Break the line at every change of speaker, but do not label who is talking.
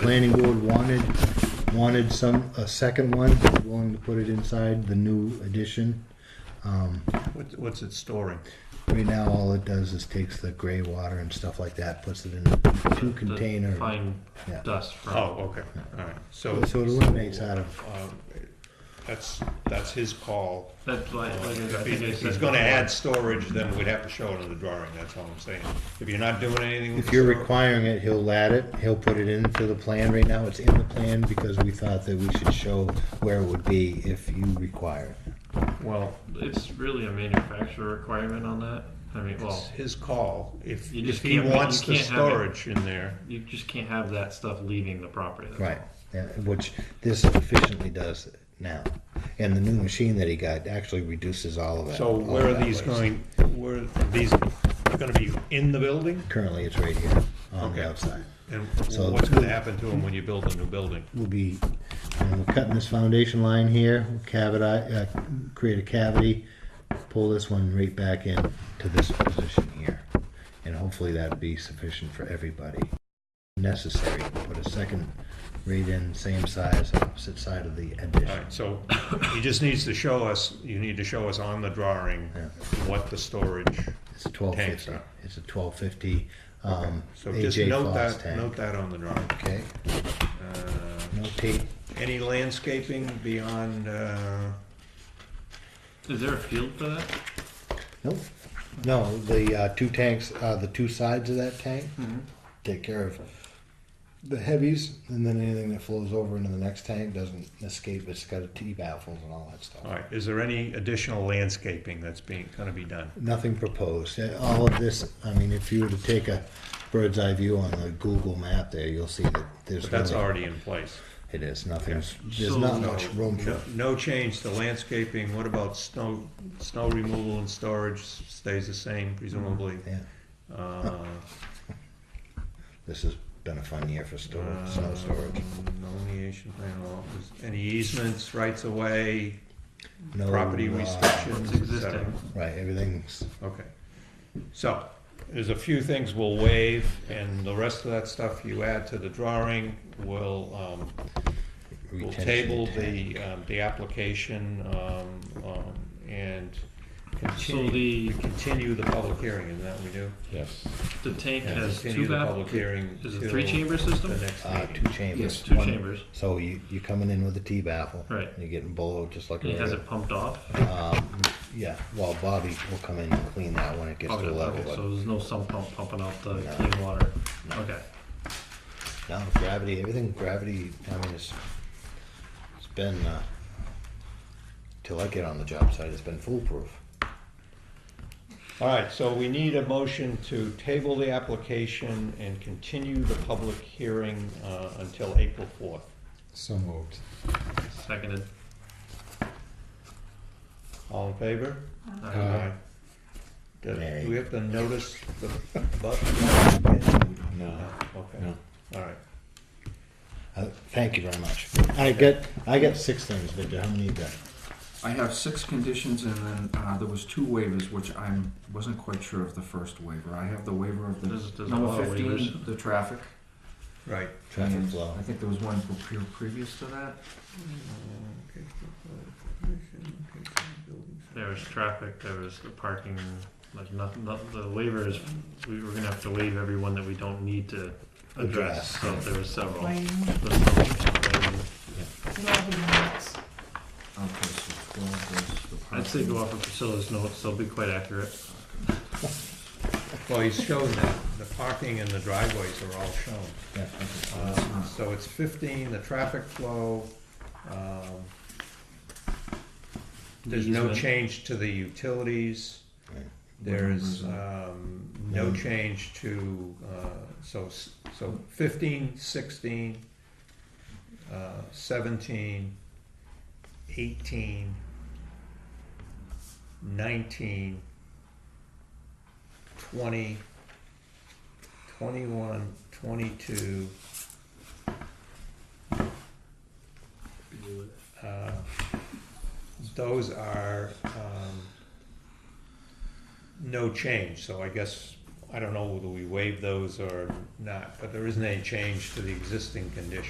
planning board wanted, wanted some, a second one, willing to put it inside the new addition.
What- What's it storing?
Right now, all it does is takes the gray water and stuff like that, puts it in a two
the
container.
Fine
Yeah.
dust from.
Oh, okay, all right, so.
So it eliminates out of,
um, That's, that's his call.
That's like, like I
If
think
he-
I
if
said
he's gonna
before.
add storage, then we'd have to show it on the drawing, that's all I'm saying. If you're not doing anything with
if
the
you're
storage-
requiring it, he'll add it, he'll put it into the plan. Right now, it's in the plan because we thought that we should show where it would be if you require it.
Well,
It's really a manufacturer requirement on that. I mean,
it's
well,
his call, if,
You
if
just
he
can't- you
wants the
can't have it.
storage in there.
you just can't have that stuff leaving the property. that's
Right,
all.
yeah, which this efficiently does now. And the new machine that he got actually reduces all of that.
So
all of
where are
Oh, that
these
waste.
going, where, are these gonna be in the building?
Currently, it's right here on
Okay.
the outside.
And
So-
what's gonna happen to them when you build a new building?
We'll be, um, we're cutting this foundation line here, cavity, uh, create a cavity, pull this one right back in to this position here. And hopefully that'd be sufficient for everybody. Necessary, put a second right in, same size, opposite side of the
All
addition.
right, so he just needs to show us, you need to show us on the drawing
Yeah.
what the storage,
It's a twelve fifty.
Tanks,
It's a twelve fifty. Um,
so just
AJ Foss
note that,
tank.
note that on the drawing.
Okay,
Uh,
notate.
Any landscaping beyond, uh,
Is there a field for that?
Nope. No, the, uh, two tanks, uh, the two sides of that tank
Mm-hmm.
take care of the heavies and then anything that flows over into the next tank doesn't escape. It's got a T baffles and all that
all
stuff.
right, is there any additional landscaping that's being, gonna be done?
Nothing proposed. Uh, All of this, I mean, if you were to take a bird's eye view on the Google map there, you'll see that there's
But that's
really-
already in place.
It is, nothing's, there's
So
not
No,
much room for
no- No change to landscaping, what about snow, snow removal and storage stays the same presumably?
Yeah, Mm.
Uh,
this has been a fun year for
uh,
storage, snow storage.
No liaison, I don't know, is any easements, rights of way,
No,
property
uh,
restrictions,
It's
et cetera?
existing.
Right, everything's,
Okay. So, there's a few things we'll waive, and the rest of that stuff you add to the drawing, we'll, um, we'll
retention
table
tank.
the, um, the application, um, um, and
So
continue,
the,
continue the public hearing, isn't that what we do?
Yes.
the tank
Yeah,
has
continue
two
the public
baffles.
hearing
Is it
till
three chamber
The
system?
next
Uh,
meeting.
two chambers.
Yes, two
One-
chambers.
So you, you're coming in with a T baffle.
Right.
You're getting blowed just like.
And it has
a-
it pumped off.
Um, yeah, well, Bobby will come in and clean that when it gets to
Okay,
the level.
okay, so
but
there's no sump pump pumping out the
No.
clean water. Okay.
No, gravity, everything, gravity, I mean, it's, it's been, uh, till I get on the job site, it's been foolproof.
All right, so we need a motion to table the application and continue the public hearing, uh, until April fourth.
So moved.
Seconded.
All in favor?
Aye.
Do
Nay.
do we have to notice the button?
No.
Okay,
No.
all right.
Uh, thank you very much. I got, I got six things, Victor, how many you got?
I have six conditions, and then uh, there was two waivers, which I wasn't quite sure of the first waiver. I have the waiver of the
There's- there's a lot
number
of
fifteen,
waivers.
the traffic.
Right.
Traffic
and
flow.
I think there was one pre- previous to that.
There was traffic, there was the parking, like nothing, not- the waivers, we were gonna have to waive everyone that we don't need to address,
Address.
so there was several.
Lane,
There's no- um,
Lovely Knots.
Okay, so twelve was the.
I'd say
parking.
go off of Priscilla's notes, they'll be quite accurate.
Well, he's shown that, the parking and the driveways are all shown.
Yeah.
Um, So it's fifteen, the traffic flow, um, there's no
Easement.
change to the utilities.
Right.
There's, um, no change to, uh, so, s- so fifteen, sixteen, uh, seventeen, eighteen, nineteen, twenty, twenty-one, twenty-two, uh, those are, um, no change, so I guess I don't know whether we waive those or not, but there isn't any change to the existing condition.